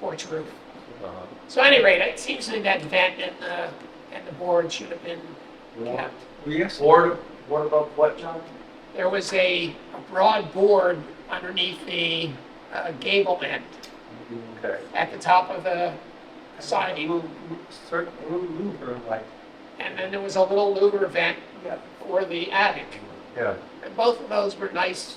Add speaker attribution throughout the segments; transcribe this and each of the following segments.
Speaker 1: porch roof.
Speaker 2: Uh,
Speaker 1: So at any rate, it seems to me that vent and the, and the board should have been kept.
Speaker 3: Yes.
Speaker 4: Board, board above what, John?
Speaker 1: There was a a broad board underneath the uh, gable end
Speaker 2: Okay.
Speaker 1: at the top of the siding.
Speaker 3: Move, move- cert, move, move her like.
Speaker 1: And then there was a little louver vent for the attic.
Speaker 2: Yeah.
Speaker 1: And both of those were nice,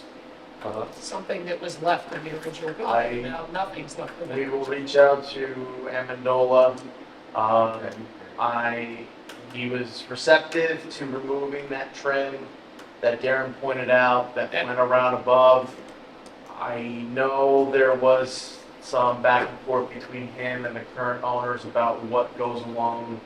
Speaker 3: uh,
Speaker 2: Uh-huh.
Speaker 1: something that was left in the original
Speaker 4: I-
Speaker 1: building. Now nothing's left of
Speaker 4: We
Speaker 1: it.
Speaker 4: will reach out to Amendola. Um, I, he was receptive to removing that trim that Darren pointed out that went around above. I know there was some back and forth between him and the current owners about what goes along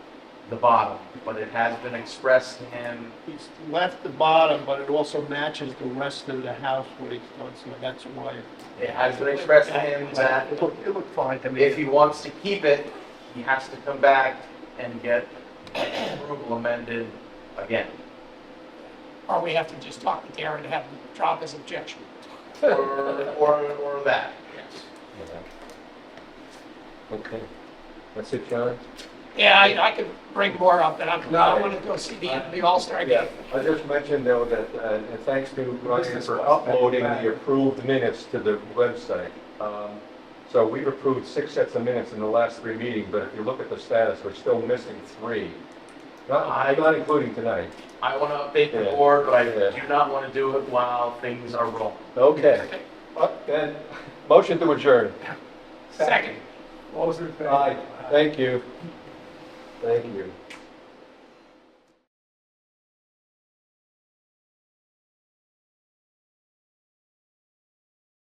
Speaker 4: the bottom, but it has been expressed to him.
Speaker 3: He's left the bottom, but it also matches the rest of the house what he's done, so that's why.
Speaker 4: It has been expressed to him that
Speaker 3: It looked, it looked fine to me.
Speaker 4: if he wants to keep it, he has to come back and get approval amended again.
Speaker 1: Or we have to just talk to Darren to have him drop his objection.
Speaker 4: Or, or, or that.
Speaker 2: Yeah. Okay. That's it, John?
Speaker 1: Yeah, I, I could bring more up, but I'm, I
Speaker 2: No.
Speaker 1: want to go see the, the All-Star game.
Speaker 2: I just mentioned though that, uh, and thanks to Ryan for uploading the approved minutes to the website. Um, So we've approved six sets of minutes in the last three meetings, but if you look at the status, we're still missing three. Not, not including tonight.
Speaker 4: I want to update the
Speaker 2: Yeah.
Speaker 4: board, but I
Speaker 2: Yeah.
Speaker 4: do not want to do it while things are rolling.
Speaker 2: Okay. Uh, Then, motion to adjourn.
Speaker 1: Second.
Speaker 3: What was it? Uh,
Speaker 2: Aye. Thank you. Thank you.